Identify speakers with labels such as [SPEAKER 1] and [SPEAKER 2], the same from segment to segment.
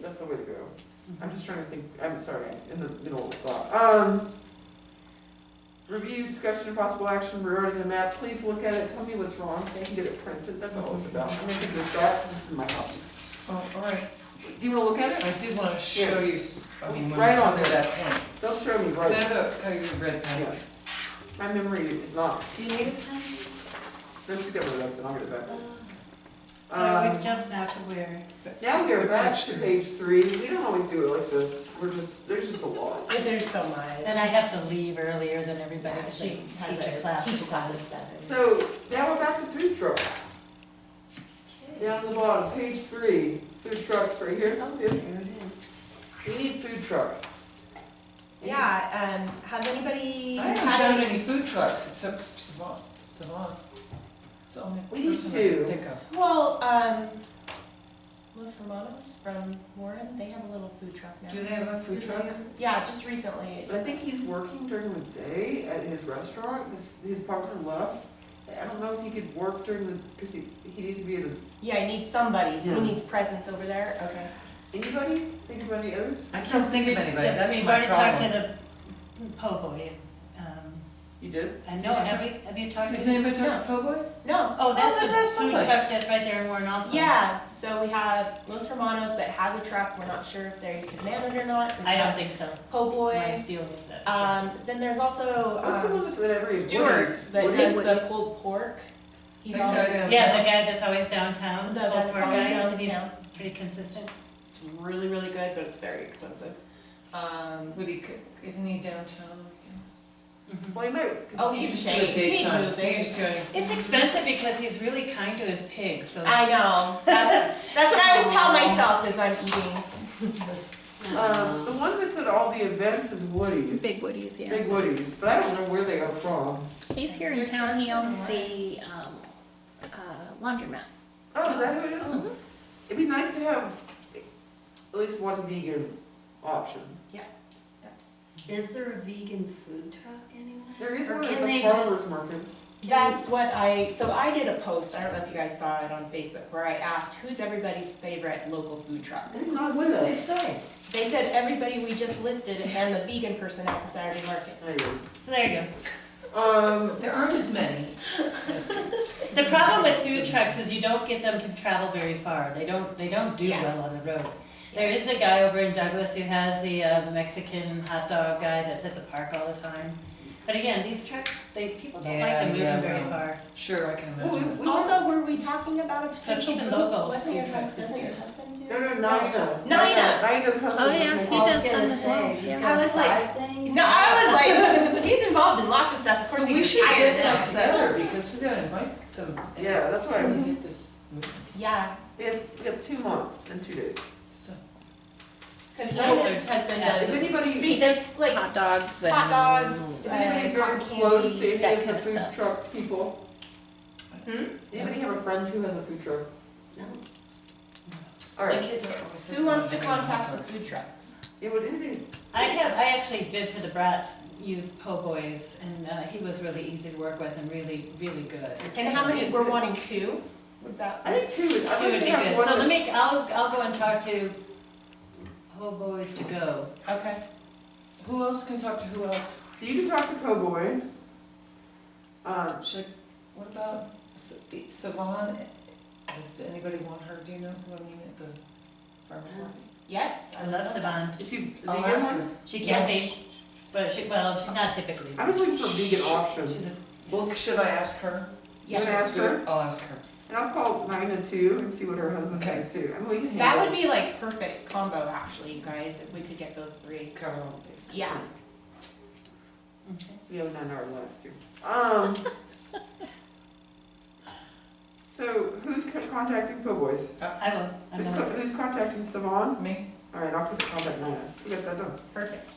[SPEAKER 1] that's the way to go. I'm just trying to think, I'm sorry, I'm in the middle of thought. Um, review, discussion, and possible action regarding the map, please look at it, tell me what's wrong, so I can get it printed, that's all it's about. I'm gonna take this back, this is my copy.
[SPEAKER 2] Oh, all right,
[SPEAKER 1] Do you wanna look at it?
[SPEAKER 2] I did want to show you, s- I mean, when we
[SPEAKER 1] Right
[SPEAKER 2] come
[SPEAKER 1] on
[SPEAKER 2] to that point.
[SPEAKER 1] They'll show me,
[SPEAKER 2] No,
[SPEAKER 1] right?
[SPEAKER 2] no, no, your red pen.
[SPEAKER 1] Yeah. My memory is not,
[SPEAKER 3] Do you need a pen?
[SPEAKER 1] no, she got rid of it, then I'll get it back.
[SPEAKER 3] Uh,
[SPEAKER 4] So
[SPEAKER 1] Um,
[SPEAKER 4] we jumped now to where?
[SPEAKER 1] Now we are back
[SPEAKER 2] Page
[SPEAKER 1] to
[SPEAKER 2] three.
[SPEAKER 1] page three, we don't always do it like this, we're just, there's just a lot.
[SPEAKER 4] There's so much.
[SPEAKER 3] And I have to leave earlier than everybody, because
[SPEAKER 4] She
[SPEAKER 3] she has
[SPEAKER 4] teacher
[SPEAKER 3] a
[SPEAKER 4] class.
[SPEAKER 3] teacher class at seven.
[SPEAKER 1] So, now we're back to food trucks, down the bottom, page three, food trucks right here,
[SPEAKER 3] Oh,
[SPEAKER 1] that's
[SPEAKER 3] there
[SPEAKER 1] it.
[SPEAKER 3] it is.
[SPEAKER 1] We need food trucks.
[SPEAKER 5] Yeah, um, has anybody
[SPEAKER 2] I haven't
[SPEAKER 5] had
[SPEAKER 2] found
[SPEAKER 5] any?
[SPEAKER 2] any food trucks except for Savant, Savant. It's the only
[SPEAKER 1] We need
[SPEAKER 2] person I can
[SPEAKER 1] to.
[SPEAKER 2] think of.
[SPEAKER 5] Well, um, Los Hermanos from Warren, they have a little food truck
[SPEAKER 2] Do
[SPEAKER 5] now.
[SPEAKER 2] they have a food truck?
[SPEAKER 5] Yeah, just recently. it
[SPEAKER 1] I
[SPEAKER 5] just-
[SPEAKER 1] think he's working during the day at his restaurant, his, his partner left. I don't know if he could work during the, because he, he needs to be at his,
[SPEAKER 5] Yeah, he needs somebody.
[SPEAKER 1] Yeah.
[SPEAKER 5] He needs presence over there. Oh, Okay.
[SPEAKER 1] anybody, think of any others?
[SPEAKER 2] I can't think of anybody,
[SPEAKER 4] The-
[SPEAKER 2] that's
[SPEAKER 4] We've
[SPEAKER 2] my
[SPEAKER 4] already talked
[SPEAKER 2] problem.
[SPEAKER 4] to the po' boy, um,
[SPEAKER 1] You did?
[SPEAKER 4] I know, have you, have you talked
[SPEAKER 2] Has
[SPEAKER 4] to?
[SPEAKER 2] anybody talked to Po'boy?
[SPEAKER 5] No.
[SPEAKER 4] Oh, that's
[SPEAKER 2] that's
[SPEAKER 4] the
[SPEAKER 2] us,
[SPEAKER 4] food
[SPEAKER 2] Po' Boy.
[SPEAKER 4] truck that's right there in Warren also.
[SPEAKER 5] Yeah, so we have Los Hermanos that has a truck. We're not sure if they can man it or not. We
[SPEAKER 4] I don't
[SPEAKER 5] have
[SPEAKER 4] think so,
[SPEAKER 5] Po'
[SPEAKER 4] my
[SPEAKER 5] Boy.
[SPEAKER 4] feeling is that.
[SPEAKER 5] Um, then there's also
[SPEAKER 1] What's the one
[SPEAKER 5] um,
[SPEAKER 1] that's in every?
[SPEAKER 5] Stewart
[SPEAKER 1] Woodie's?
[SPEAKER 5] that
[SPEAKER 1] Woodie's?
[SPEAKER 5] does the pulled pork. He's
[SPEAKER 2] That
[SPEAKER 5] all
[SPEAKER 2] guy down
[SPEAKER 4] Yeah,
[SPEAKER 2] there.
[SPEAKER 4] the guy that's always downtown,
[SPEAKER 5] The
[SPEAKER 4] the
[SPEAKER 5] guy that's
[SPEAKER 4] old poor
[SPEAKER 5] always
[SPEAKER 4] guy, and he's
[SPEAKER 5] downtown.
[SPEAKER 4] pretty consistent.
[SPEAKER 5] It's really, really good, but it's very expensive. Um,
[SPEAKER 2] Would he, cook- isn't he downtown?
[SPEAKER 4] Mm-hmm.
[SPEAKER 1] Well, you might.
[SPEAKER 5] Oh, he
[SPEAKER 2] He
[SPEAKER 5] He's
[SPEAKER 2] just do a
[SPEAKER 5] day-
[SPEAKER 2] daytime,
[SPEAKER 5] he's moving.
[SPEAKER 2] he's doing.
[SPEAKER 4] It's expensive because he's really kind to his pigs, so.
[SPEAKER 5] I know. That's that's what I always tell myself is I'm eating.
[SPEAKER 1] Um, the one that's at all the events is Woody's.
[SPEAKER 6] Big Woody's, yeah.
[SPEAKER 1] Big Woody's, but I don't know where they are from.
[SPEAKER 6] He's here in town, he owns the um, uh, laundromat.
[SPEAKER 1] Oh, is that who it is? It'd be nice to have at least one vegan option.
[SPEAKER 3] Is there a vegan food truck anywhere?
[SPEAKER 1] There is
[SPEAKER 3] Or
[SPEAKER 1] one at
[SPEAKER 3] can
[SPEAKER 1] the
[SPEAKER 3] they
[SPEAKER 1] farmer's
[SPEAKER 3] just-
[SPEAKER 1] market.
[SPEAKER 5] That's what I, so I did a post, I don't know if you guys saw it on Facebook, where I asked, who's everybody's favorite local food truck?
[SPEAKER 1] They're not
[SPEAKER 2] What
[SPEAKER 1] with
[SPEAKER 2] do they
[SPEAKER 1] us.
[SPEAKER 2] say?
[SPEAKER 5] They said everybody we just listed and then the vegan person at the Saturday market.
[SPEAKER 1] There you go.
[SPEAKER 4] So there you go.
[SPEAKER 1] Um,
[SPEAKER 2] There aren't as many.
[SPEAKER 4] The problem with food trucks is you don't get them to travel very far. They don't, they don't do
[SPEAKER 5] Yeah.
[SPEAKER 4] well on the road. There is a guy over in Douglas who has the uh, Mexican hot dog guy that's at the park all the time. But again, these trucks, they, people don't like
[SPEAKER 2] Yeah,
[SPEAKER 4] to move
[SPEAKER 2] yeah,
[SPEAKER 4] them very
[SPEAKER 2] well.
[SPEAKER 4] far.
[SPEAKER 2] Sure, I can
[SPEAKER 1] well, we,
[SPEAKER 2] imagine.
[SPEAKER 1] we
[SPEAKER 5] Also, were we talking about a
[SPEAKER 4] So
[SPEAKER 5] potential
[SPEAKER 4] keep it
[SPEAKER 5] booth?
[SPEAKER 4] local.
[SPEAKER 5] Wasn't your
[SPEAKER 2] Food trucks
[SPEAKER 5] husband, doesn't
[SPEAKER 2] is
[SPEAKER 5] your
[SPEAKER 2] good.
[SPEAKER 5] husband do?
[SPEAKER 1] No, no, Nina.
[SPEAKER 5] Nina.
[SPEAKER 1] Nina's husband.
[SPEAKER 6] Oh, yeah,
[SPEAKER 1] was
[SPEAKER 6] he
[SPEAKER 1] my-
[SPEAKER 3] I
[SPEAKER 6] does
[SPEAKER 3] was
[SPEAKER 6] some
[SPEAKER 3] gonna
[SPEAKER 6] as well,
[SPEAKER 3] say, he's
[SPEAKER 6] yeah.
[SPEAKER 3] got
[SPEAKER 5] I
[SPEAKER 3] a
[SPEAKER 5] was like-
[SPEAKER 3] side thing.
[SPEAKER 5] No, I was like, he's involved in lots of stuff, of course
[SPEAKER 2] We
[SPEAKER 5] he's
[SPEAKER 2] should get
[SPEAKER 5] retired now,
[SPEAKER 2] that
[SPEAKER 5] so.
[SPEAKER 2] together because we gotta invite them.
[SPEAKER 1] Yeah, that's why I
[SPEAKER 2] We
[SPEAKER 1] mean.
[SPEAKER 2] get this moving.
[SPEAKER 5] Yeah,
[SPEAKER 1] We have, we have two months and two days.
[SPEAKER 2] So,
[SPEAKER 5] cause
[SPEAKER 4] Yeah,
[SPEAKER 5] Nina's
[SPEAKER 4] so-
[SPEAKER 5] husband
[SPEAKER 4] yeah.
[SPEAKER 1] Is
[SPEAKER 5] does,
[SPEAKER 1] anybody, is
[SPEAKER 6] It's
[SPEAKER 5] like
[SPEAKER 6] Hot dogs and.
[SPEAKER 5] hot dogs, uh,
[SPEAKER 1] anybody very
[SPEAKER 5] cotton
[SPEAKER 1] close
[SPEAKER 5] candy.
[SPEAKER 1] to any
[SPEAKER 6] that
[SPEAKER 1] of the
[SPEAKER 6] kind of
[SPEAKER 1] food
[SPEAKER 6] stuff.
[SPEAKER 1] truck people?
[SPEAKER 5] Hmm?
[SPEAKER 1] Anybody have a friend who has a food truck?
[SPEAKER 3] No.
[SPEAKER 1] All
[SPEAKER 2] The
[SPEAKER 1] right.
[SPEAKER 2] kids are always.
[SPEAKER 5] Who wants to
[SPEAKER 2] different.
[SPEAKER 5] contact the food trucks?
[SPEAKER 1] Yeah, would anybody?
[SPEAKER 4] I have, I actually did for the brats use po' boys and uh, he was really easy to work with and really, really good.
[SPEAKER 5] And how many, we're wanting two? Was that?
[SPEAKER 1] I think two is. I
[SPEAKER 4] Two would
[SPEAKER 1] think we
[SPEAKER 4] be
[SPEAKER 1] have
[SPEAKER 4] good.
[SPEAKER 1] one
[SPEAKER 4] So
[SPEAKER 1] that-
[SPEAKER 4] let me, I'll, I'll go and talk to po' boys to go.
[SPEAKER 5] Okay.
[SPEAKER 2] Who else can talk to who else?
[SPEAKER 1] So you can talk to Cowboy. Um,
[SPEAKER 2] Should, what about Sa- Savon? Does anybody want her, do you know who I mean at the farmer's market?
[SPEAKER 5] Yes,
[SPEAKER 4] I love Savant.
[SPEAKER 1] is she a vegan
[SPEAKER 2] I'll ask
[SPEAKER 1] one?
[SPEAKER 2] her.
[SPEAKER 4] She can
[SPEAKER 5] Yes.
[SPEAKER 4] be, but she, well, she's not typically.
[SPEAKER 1] I was looking for a vegan option.
[SPEAKER 4] She's a
[SPEAKER 2] Well, should I ask her?
[SPEAKER 1] Yes.
[SPEAKER 2] Is
[SPEAKER 1] Should I ask
[SPEAKER 2] this good? I'll ask her.
[SPEAKER 1] And I'll call Nina too and see what her husband thinks too. I mean, we can handle
[SPEAKER 5] That would be like perfect combo, actually, you guys, if we could get those three.
[SPEAKER 2] Cover all the bases.
[SPEAKER 5] Yeah.
[SPEAKER 4] Okay.
[SPEAKER 1] We have none in our lives too. Um. So who's co- contacting Po'boys?
[SPEAKER 4] I will, I'm
[SPEAKER 1] Who's,
[SPEAKER 4] gonna-
[SPEAKER 1] co- who's contacting Savon?
[SPEAKER 2] Me?
[SPEAKER 1] All right, I'll put the contact Nina. We got that done.
[SPEAKER 5] Perfect.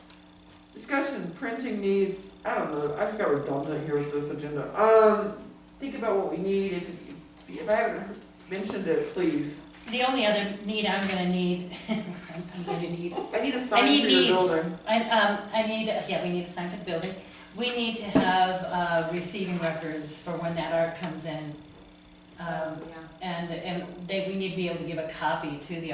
[SPEAKER 1] Discussion, printing needs, I don't know, I just got redundant here with this agenda. Um, think about what we need, if, if I haven't mentioned it, please.
[SPEAKER 4] the only other need I'm gonna need, I'm gonna need,
[SPEAKER 1] I need a sign
[SPEAKER 4] need
[SPEAKER 1] for your
[SPEAKER 4] needs.
[SPEAKER 1] building.
[SPEAKER 4] I, um, I need, yeah, we need a sign for the building. We need to have, uh, receiving records for when that art comes in. Um,
[SPEAKER 3] Yeah.
[SPEAKER 4] and, and they, we need to be able to give a copy to the